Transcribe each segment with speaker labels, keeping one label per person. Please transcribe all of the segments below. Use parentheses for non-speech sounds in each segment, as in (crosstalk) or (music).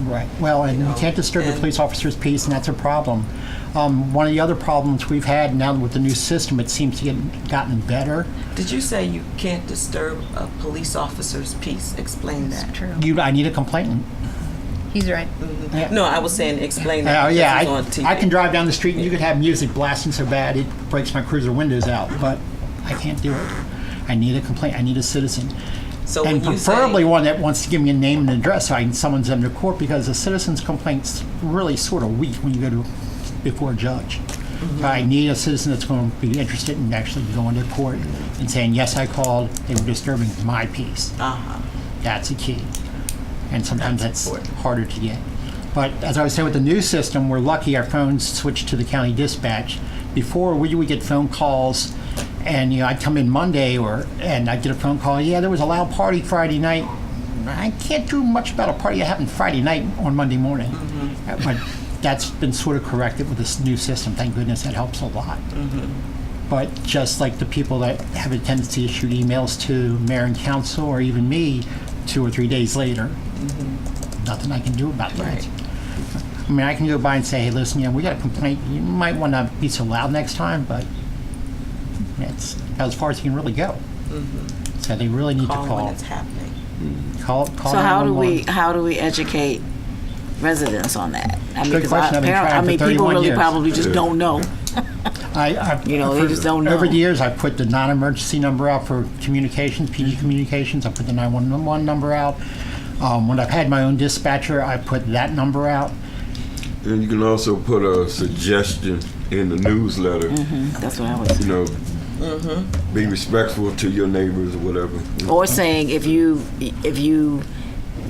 Speaker 1: Right. Well, and you can't disturb the
Speaker 2: and-
Speaker 1: police officer's peace, and that's a problem. Um, one of the other problems we've had now with the new system, it seems to get gotten better.
Speaker 2: Did you say you can't disturb a police officer's peace? Explain that.
Speaker 3: True.
Speaker 1: You, I need a complainant.
Speaker 3: He's right.
Speaker 1: Yeah.
Speaker 2: No, I was saying explain that.
Speaker 1: Oh
Speaker 2: because
Speaker 1: yeah,
Speaker 2: it's on
Speaker 1: I,
Speaker 2: TV.
Speaker 1: I can drive down the street and you could have music blasting so bad it breaks my cruiser windows out, but I can't do it. I need a complaint. I need a citizen,
Speaker 2: So
Speaker 1: and
Speaker 2: when you say-
Speaker 1: preferably one that wants to give me a name and address so I can summons them to court because a citizen's complaint's really sort of weak when you go to before a judge.
Speaker 2: Mm-hmm.
Speaker 1: So I need a citizen that's going to be interested in actually going to court and saying yes, I called. They were disturbing my peace.
Speaker 2: Uh-huh.
Speaker 1: That's a key. And sometimes that's
Speaker 2: important.
Speaker 1: harder to get. But as I was saying, with the new system, we're lucky our phones switched to the county dispatch. Before, we would get phone calls, and you know, I'd come in Monday, or and I'd get a phone call. Yeah, there was a loud party Friday night. I can't do much about a party that happened Friday night on Monday morning. Uh, But that's been sort of corrected with this new system. Thank goodness that helps a lot but just like the people that have a tendency to shoot emails to mayor and council or even me two or three days later, nothing I can do about that.
Speaker 2: Mm-hmm. Right.
Speaker 1: I mean, I can go by and say, hey, listen, you know, we got a complaint. You might want to be so loud next time, but that's as far as you can really go. So they really need
Speaker 2: Mm-hmm. Call
Speaker 1: to
Speaker 2: when
Speaker 1: call.
Speaker 2: it's happening.
Speaker 1: Call, call.
Speaker 4: So how do we
Speaker 1: 911.
Speaker 4: how do we educate residents on that? I mean,
Speaker 1: Good
Speaker 4: 'cause
Speaker 1: question.
Speaker 4: I,
Speaker 1: I've been
Speaker 4: apparent- I
Speaker 1: trying for
Speaker 4: mean, people
Speaker 1: 31
Speaker 4: really
Speaker 1: years.
Speaker 4: probably just don't know.
Speaker 1: I, I,
Speaker 4: You know, they
Speaker 1: for-
Speaker 4: just don't
Speaker 1: Over
Speaker 4: know.
Speaker 1: the years, I put the non-emergency number out for communications, PD communications. I put the 911 number out. Um, when I've had my own dispatcher, I put that number out.
Speaker 5: And you can also put a suggestion in the newsletter.
Speaker 1: Mm-hmm.
Speaker 4: That's what I was.
Speaker 5: You know, be respectful to your neighbors or whatever.
Speaker 4: Or saying if you if you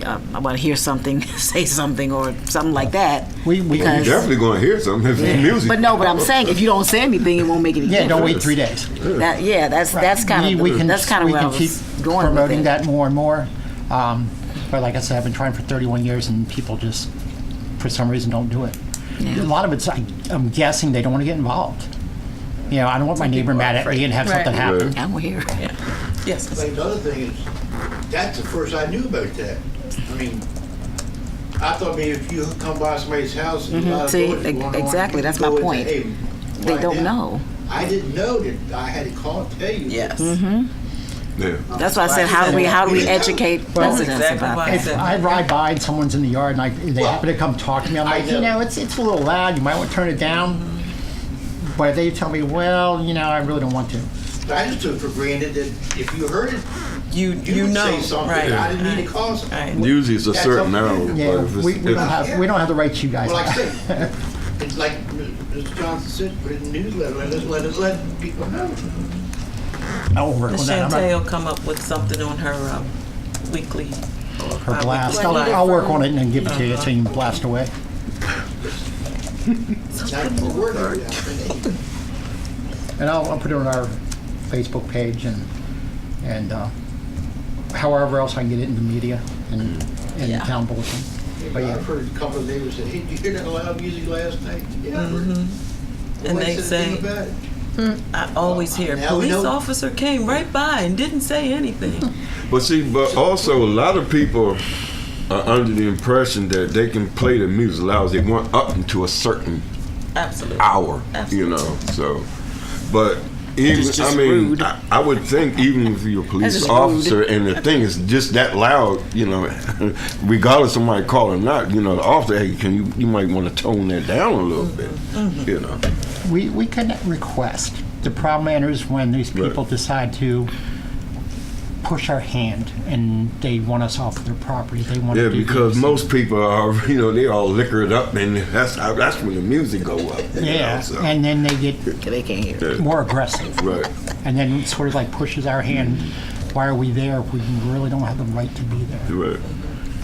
Speaker 4: uh, I want to hear something, (laughs) say something or something like that.
Speaker 1: We- we-
Speaker 5: You're
Speaker 4: because
Speaker 5: definitely going to hear something if it's music.
Speaker 4: but no, but I'm saying if you don't say anything, it won't make any
Speaker 1: Yeah,
Speaker 4: difference.
Speaker 1: don't wait three days.
Speaker 4: That, yeah, that's that's kind of
Speaker 1: we, we can
Speaker 4: that's kind of
Speaker 1: we
Speaker 4: where I
Speaker 1: can
Speaker 4: was
Speaker 1: keep
Speaker 4: going
Speaker 1: promoting
Speaker 4: with it.
Speaker 1: that more and more. Um, but like I said, I've been trying for 31 years, and people just, for some reason, don't do it. A lot of it's, I, I'm guessing, they don't want to get involved. You know, I don't want my neighbor mad at me and have something happen.
Speaker 4: I'm here.
Speaker 2: Yes.
Speaker 6: But the other thing is, that's the first I knew about that. I mean, I thought maybe if you come by somebody's house and a lot of
Speaker 4: See,
Speaker 6: doors
Speaker 4: e-
Speaker 6: going on,
Speaker 4: exactly, that's
Speaker 6: you go
Speaker 4: my
Speaker 6: in
Speaker 4: point.
Speaker 6: and say, "Hey,
Speaker 4: They
Speaker 6: right
Speaker 4: don't
Speaker 6: now."
Speaker 4: know.
Speaker 6: I didn't know that I had to call and tell you.
Speaker 2: Yes.
Speaker 5: Yeah.
Speaker 4: That's why I said how do we how do we educate
Speaker 2: That's
Speaker 4: residents
Speaker 2: exactly
Speaker 4: about
Speaker 2: why I
Speaker 4: that?
Speaker 2: said-
Speaker 1: If I ride by and someone's in the yard and I, they happen to come talk to me, I'm
Speaker 6: I
Speaker 1: like, you
Speaker 6: know.
Speaker 1: know, it's, it's a little loud, you might want to turn it down. But they tell me, well, you know, I really don't want to.
Speaker 6: But I just took for granted that if you heard it,
Speaker 2: You
Speaker 6: you,
Speaker 2: you
Speaker 6: would
Speaker 2: know
Speaker 6: say something.
Speaker 2: right.
Speaker 6: I didn't need
Speaker 2: right,
Speaker 6: to call something.
Speaker 2: right.
Speaker 5: Usually it's a
Speaker 6: That's
Speaker 5: certain
Speaker 6: up to
Speaker 5: hour.
Speaker 6: you.
Speaker 1: Yeah,
Speaker 5: but if it's,
Speaker 1: we, we,
Speaker 5: if-
Speaker 1: don't have, we don't have the right to you guys.
Speaker 6: Well, like I said, it's like Mr. Johnson said, put it in the newsletter, let it, let it, let people know.
Speaker 1: (laughs) I'll work
Speaker 2: Miss
Speaker 1: on that. I'm not-
Speaker 2: Chantel come up with something on her um, weekly or
Speaker 1: Her
Speaker 2: bi-weekly
Speaker 1: blast. I'll,
Speaker 2: blast.
Speaker 1: I'll work on it and then give it to
Speaker 2: Uh-huh.
Speaker 1: you so you can blast away.
Speaker 6: Now you can work it out.
Speaker 1: And I'll, I'll put it on our Facebook page and, and, uh, however else I can get it in the media and, and the
Speaker 2: Yeah.
Speaker 1: town bulletin. But yeah.
Speaker 6: I've heard a couple of neighbors say, hey, did you hear that loud music last night? Yeah. I heard it."
Speaker 2: Mm-hmm. And
Speaker 6: Nobody
Speaker 2: they
Speaker 6: said a thing
Speaker 2: say-
Speaker 6: about it.
Speaker 2: I always hear
Speaker 6: Now we
Speaker 2: police
Speaker 6: know-
Speaker 2: officer came right by and didn't say anything.
Speaker 6: (laughs)
Speaker 5: But see, but also a lot of people are under the impression that they can play the music loud as they want up into a certain
Speaker 2: Absolutely.
Speaker 6: Ah.
Speaker 5: hour, you know. So, but even
Speaker 4: is just
Speaker 5: I mean,
Speaker 4: rude.
Speaker 5: I, I would think even if you're a police
Speaker 4: just
Speaker 5: officer and the thing is just that loud, you know, (laughs) regardless of my call or not, you know, the officer, hey, can you you might want to tone that down a little bit, you know.
Speaker 1: We, we can request. The problem enters when these people
Speaker 5: Right.
Speaker 1: decide to push our hand and they want us off their property. They want
Speaker 5: Yeah,
Speaker 1: to do
Speaker 5: because
Speaker 1: these.
Speaker 5: most people are, (laughs) you know, they all liquored up, and that's how- that's when the music go up. you know,
Speaker 1: yeah,
Speaker 5: so.
Speaker 1: and then they get
Speaker 4: They can't hear.
Speaker 1: more aggressive,
Speaker 5: right.
Speaker 1: and then it sort of like pushes our hand. Why are we there? if We really don't have the right to be there.
Speaker 5: Right.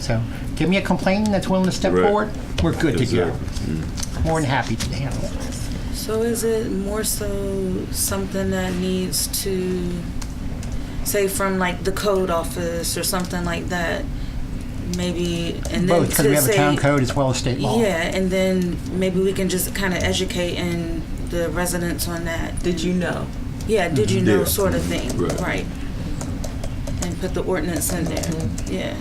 Speaker 1: So, give me a complaint that's willing to step
Speaker 5: Right.
Speaker 1: forward. We're good to go.
Speaker 5: Exactly. Mm.
Speaker 1: More than happy to handle it.
Speaker 7: So is it more so something that needs to, say, from like the code office or something like that? Maybe and then
Speaker 1: Both because
Speaker 7: to
Speaker 1: we have a
Speaker 7: say-
Speaker 1: town code as well as state law.
Speaker 7: Yeah, and then maybe we can just kind of educate and the residents on that.
Speaker 2: Did you know?
Speaker 7: Yeah, did you know
Speaker 5: Yeah.
Speaker 7: sort of thing,
Speaker 5: Right.
Speaker 2: Mm-hmm.
Speaker 7: right? And put the ordinance in there. Yeah.